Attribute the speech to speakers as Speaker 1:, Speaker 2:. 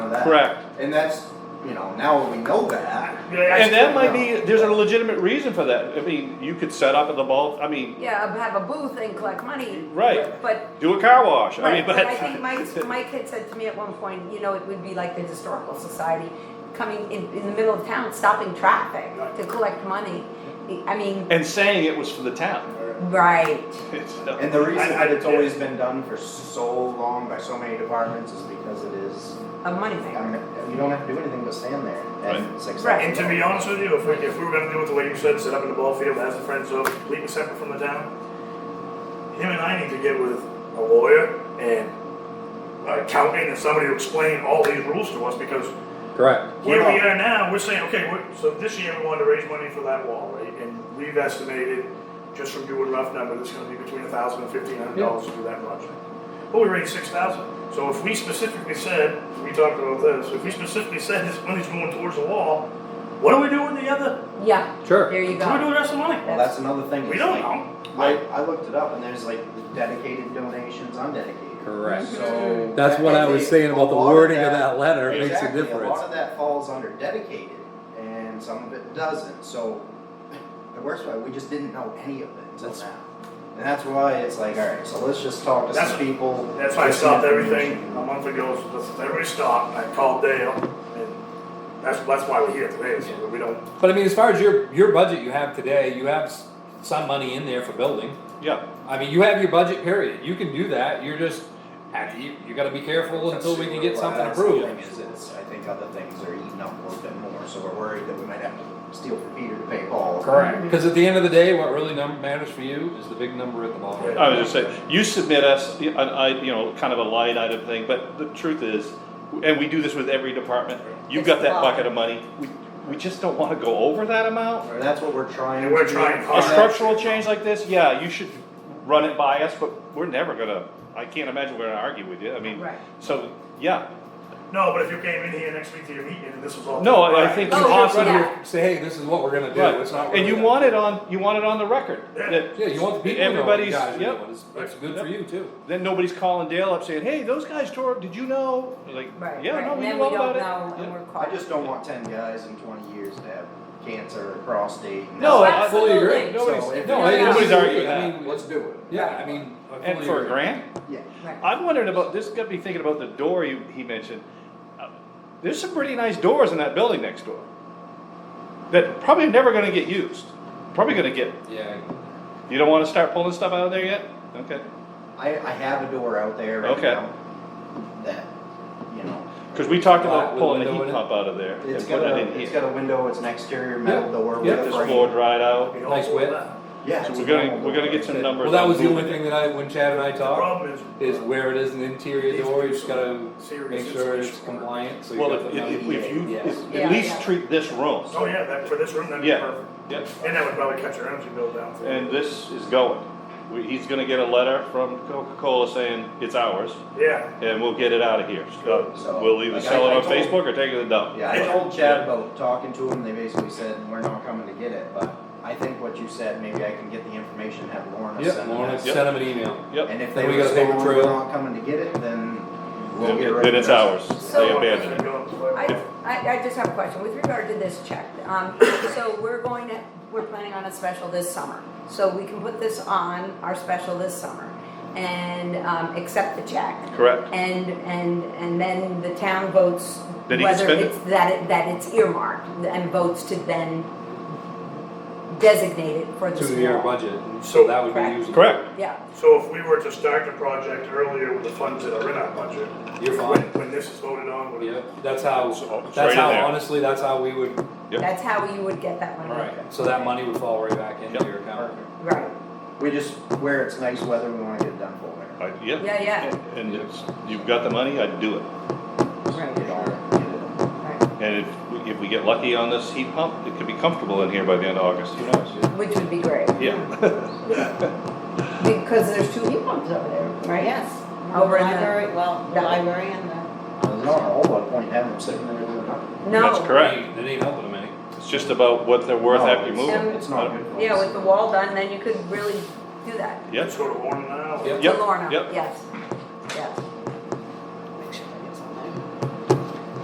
Speaker 1: that.
Speaker 2: Correct.
Speaker 1: And that's, you know, now we know that.
Speaker 2: And that might be, there's a legitimate reason for that. I mean, you could set up at the ball, I mean,
Speaker 3: Yeah, have a booth and collect money.
Speaker 2: Right.
Speaker 3: But,
Speaker 2: do a car wash, I mean,
Speaker 3: but I
Speaker 2: but,
Speaker 3: think Mike, Mike had said to me at one point, you know, it would be like the historical society coming in, in the middle of town, stopping traffic to collect money. I mean,
Speaker 2: and saying it was for the town.
Speaker 3: right,
Speaker 2: It's, uh,
Speaker 1: And the reason
Speaker 4: I- I-
Speaker 1: that it's always been done for so long by so many departments is because it is,
Speaker 3: a money
Speaker 1: I
Speaker 3: maker.
Speaker 1: mean, you don't have to do anything but stand there
Speaker 2: Right.
Speaker 1: at six.
Speaker 3: Right.
Speaker 4: And to be honest with you, if we, if we were gonna do it the way you said, set up in the ball field, have the friends zone, completely separate from the town, him and I need to get with a lawyer and an accountant uh, and somebody to explain all these rules to us, because
Speaker 5: Correct.
Speaker 4: here
Speaker 1: We're
Speaker 4: we
Speaker 1: not-
Speaker 4: are now, we're saying, okay, we're, so this year we wanted to raise money for that wall, right? And we've estimated, just from doing rough numbers, it's gonna be between a thousand and fifteen hundred dollars to do that project. But we raised six thousand, so if we specifically said, we talked about this, if we specifically said this money's going towards the wall, what do we do with the other,
Speaker 3: Yeah,
Speaker 5: Sure.
Speaker 3: there you
Speaker 4: what do we do
Speaker 3: go.
Speaker 4: with the rest of the money?
Speaker 1: Well, that's another thing.
Speaker 4: We
Speaker 1: is
Speaker 4: don't
Speaker 1: like-
Speaker 4: know.
Speaker 1: I, I looked it up and there's like dedicated donations, undedicated.
Speaker 5: Correct.
Speaker 2: Mm-hmm.
Speaker 1: So.
Speaker 5: That's what I was saying about the
Speaker 1: A lot of
Speaker 5: wording of that letter. It makes a
Speaker 1: Exactly, a
Speaker 5: difference.
Speaker 1: lot of that falls under dedicated and some of it doesn't, so the worst part, we just didn't know any of it until
Speaker 5: That's-
Speaker 1: now. And that's why it's like, alright, so let's just talk to some
Speaker 4: That's-
Speaker 1: people.
Speaker 4: That's why I
Speaker 1: get some
Speaker 4: stopped everything a
Speaker 1: information.
Speaker 4: month ago, so that's- everybody stopped, I called Dale, and that's, that's why we're here today, so we don't,
Speaker 5: But I mean, as far as your, your budget you have today, you have s- some money in there for building.
Speaker 2: Yeah,
Speaker 5: I mean, you have your budget period. You can do that. You're just, have- you, you gotta be careful until we can get something
Speaker 1: That's the thing
Speaker 5: approved.
Speaker 1: is, it's- I think other things are eating up a little bit more, so we're worried that we might have to steal from Peter to pay Paul.
Speaker 5: Correct. Cause at the end of the day, what really num- matters for you is the big number at the bottom.
Speaker 2: I was just saying, you submit us, an I, you know, kind of a light item thing, but the truth is, and we do this with every department, you've got that bucket of money, we, we just don't wanna go over that amount.
Speaker 1: And That's what we're trying.
Speaker 4: And we're
Speaker 1: to do.
Speaker 4: trying hard.
Speaker 2: A structural change like this, yeah, you should run it by us, but we're never gonna, I can't imagine we're gonna argue with you, I mean,
Speaker 3: Right.
Speaker 2: so, yeah.
Speaker 4: no, but if you came in here next week to your meeting, and this was all.
Speaker 2: No, I- I think
Speaker 3: Oh,
Speaker 2: you
Speaker 3: you're
Speaker 2: possibly.
Speaker 3: right.
Speaker 5: Say, hey, this is what we're gonna
Speaker 2: Right.
Speaker 5: do. It's not.
Speaker 2: And you
Speaker 5: really-
Speaker 2: want it on, you want it on the record,
Speaker 4: Yeah.
Speaker 2: that,
Speaker 5: Yeah, you want the people to know what you
Speaker 2: Everybody's-
Speaker 5: guys are
Speaker 2: yep.
Speaker 5: doing. It's, it's good for you too.
Speaker 2: then nobody's calling Dale up saying, hey, those guys tore, up. did you know? Like,
Speaker 3: Right,
Speaker 2: yeah,
Speaker 3: right,
Speaker 2: no,
Speaker 3: and
Speaker 2: we
Speaker 3: then
Speaker 2: knew
Speaker 3: we
Speaker 2: all about
Speaker 3: don't
Speaker 2: it.
Speaker 3: know
Speaker 2: Yeah.
Speaker 3: and we're caught.
Speaker 1: I just don't want ten guys in twenty years to have cancer or prostate. and
Speaker 2: No,
Speaker 1: that's-
Speaker 2: I
Speaker 5: fully agree.
Speaker 1: So
Speaker 3: Absolutely.
Speaker 2: Nobody's,
Speaker 1: if-
Speaker 5: No,
Speaker 3: Yeah.
Speaker 5: I-
Speaker 2: nobody's arguing with
Speaker 5: I
Speaker 2: that.
Speaker 5: mean,
Speaker 1: Let's do it.
Speaker 5: Yeah, I mean. I
Speaker 2: And
Speaker 5: fully
Speaker 2: for a
Speaker 5: agree.
Speaker 2: grant?
Speaker 1: Yeah.
Speaker 3: Right.
Speaker 2: I'm wondering about, this got me thinking about the door you, he mentioned. Uh, There's some pretty nice doors in that building next door. That probably are never gonna get used, probably gonna get,
Speaker 5: Yeah.
Speaker 2: you don't wanna start pulling stuff out of there yet? Okay,
Speaker 1: I, I have a door out there right
Speaker 2: Okay.
Speaker 1: now that, you know,
Speaker 2: cause we talked
Speaker 5: Lot
Speaker 2: about
Speaker 5: with
Speaker 2: pulling the
Speaker 5: window in
Speaker 2: heat
Speaker 5: it.
Speaker 2: pump out of there
Speaker 1: it's
Speaker 2: and
Speaker 1: got
Speaker 2: putting
Speaker 1: a,
Speaker 2: it in
Speaker 1: it's
Speaker 2: here.
Speaker 1: got a window, it's an exterior metal
Speaker 5: Yeah.
Speaker 1: door with
Speaker 5: Yeah.
Speaker 1: a
Speaker 2: This
Speaker 1: frame.
Speaker 2: floor dried out.
Speaker 4: We all
Speaker 5: Nice
Speaker 4: pulled
Speaker 5: whip.
Speaker 4: that.
Speaker 1: Yeah.
Speaker 2: So
Speaker 1: it's
Speaker 2: we're
Speaker 1: a
Speaker 2: gonna,
Speaker 1: normal
Speaker 2: we're gonna
Speaker 1: door.
Speaker 2: get some numbers.
Speaker 5: Well, that
Speaker 2: on
Speaker 5: was the only
Speaker 2: moving
Speaker 5: thing that I, when Chad and I
Speaker 4: The
Speaker 5: talked,
Speaker 4: problem is.
Speaker 5: is where it is an interior door, you just gotta
Speaker 4: Serious
Speaker 5: make sure it's
Speaker 4: insulation.
Speaker 5: compliant, so
Speaker 2: it.
Speaker 5: you
Speaker 2: Well,
Speaker 5: got
Speaker 2: if,
Speaker 5: the
Speaker 2: if-
Speaker 5: number.
Speaker 2: if you,
Speaker 5: Yes.
Speaker 2: if-
Speaker 3: Yeah,
Speaker 2: at least
Speaker 3: yeah.
Speaker 2: treat this room,
Speaker 4: Oh, yeah, that, for this room, that'd be
Speaker 2: yeah,
Speaker 4: perfect.
Speaker 2: yeah,
Speaker 4: And that would probably cut your energy bill down. too.
Speaker 2: and this is going. We, he's gonna get a letter from Coca-Cola saying it's ours,
Speaker 4: Yeah,
Speaker 2: and we'll get it out of here. So
Speaker 1: So,
Speaker 2: We'll either
Speaker 1: like
Speaker 2: sell
Speaker 1: I-
Speaker 2: it
Speaker 1: I
Speaker 2: on
Speaker 1: told-
Speaker 2: Facebook or take it to the dump.
Speaker 1: Yeah, I told Chad about talking to him, they basically said, we're not coming to get it, but I think what you said, maybe I can get the information, have Lorna
Speaker 5: Yep,
Speaker 1: send it.
Speaker 5: Lorna,
Speaker 2: Yep.
Speaker 5: send them an email.
Speaker 2: Yep,
Speaker 1: And if they
Speaker 5: Then we got a paper
Speaker 1: respond, we're
Speaker 5: trail.
Speaker 1: not coming to get it, then we'll get rid
Speaker 2: then
Speaker 1: of
Speaker 2: it's
Speaker 1: it.
Speaker 2: ours.
Speaker 3: So-
Speaker 2: They abandoned it.
Speaker 3: I, I, I just have a question with regard to this check. Um, so we're going to, we're planning on a special this summer. So we can put this on our special this summer and, um, accept the check.
Speaker 2: Correct.
Speaker 3: And, and, and then the town votes
Speaker 2: That he can
Speaker 3: whether
Speaker 2: spend it?
Speaker 3: it's, that it, that it's earmarked and votes to then designate it for this
Speaker 5: To your
Speaker 3: wall.
Speaker 5: budget, and
Speaker 4: So-
Speaker 5: so that would be
Speaker 3: Correct.
Speaker 5: usable.
Speaker 2: Correct.
Speaker 3: Yeah,
Speaker 4: so if we were to start the project earlier with the funds that are in our budget.
Speaker 5: You're
Speaker 4: when-
Speaker 5: fine.
Speaker 4: When this is voted on, when.
Speaker 5: Yep, that's how,
Speaker 2: So, it's right
Speaker 5: that's
Speaker 2: in
Speaker 5: how,
Speaker 2: there.
Speaker 5: honestly, that's how we would,
Speaker 2: Yep.
Speaker 3: that's how you would get that money.
Speaker 5: right, so that money would fall right back into
Speaker 2: Yep.
Speaker 5: your account.
Speaker 3: Right,
Speaker 1: We just, where it's nice weather, we wanna get it done for winter.
Speaker 2: I- Yeah.
Speaker 3: yeah, yeah,
Speaker 2: And it's, you've got the money, I'd do it.
Speaker 1: Get
Speaker 3: right,
Speaker 1: all- get it done.
Speaker 3: right.
Speaker 2: And if, we- if we get lucky on this heat pump, it could be comfortable in here by the end of August, who knows?
Speaker 3: Which would be great.
Speaker 2: Yeah.
Speaker 3: Because there's two heat pumps over there, right?
Speaker 6: Yes,
Speaker 3: Over in the-
Speaker 6: library, well, the
Speaker 3: Yeah.
Speaker 6: library and the,
Speaker 1: There's not a whole lot of point having them sitting there doing nothing.
Speaker 3: No.
Speaker 2: That's correct.
Speaker 5: They ain't- They ain't helping them any.
Speaker 2: It's just about what they're worth
Speaker 1: No,
Speaker 2: after you
Speaker 1: Oh, it's-
Speaker 2: move them.
Speaker 1: It's not good. for
Speaker 3: Yeah,
Speaker 1: us.
Speaker 3: with the wall done, then you could really do that.
Speaker 2: Yep.
Speaker 4: Let's go to Warren now.
Speaker 5: Yep.
Speaker 3: To Lorna,
Speaker 2: yep.
Speaker 3: yes.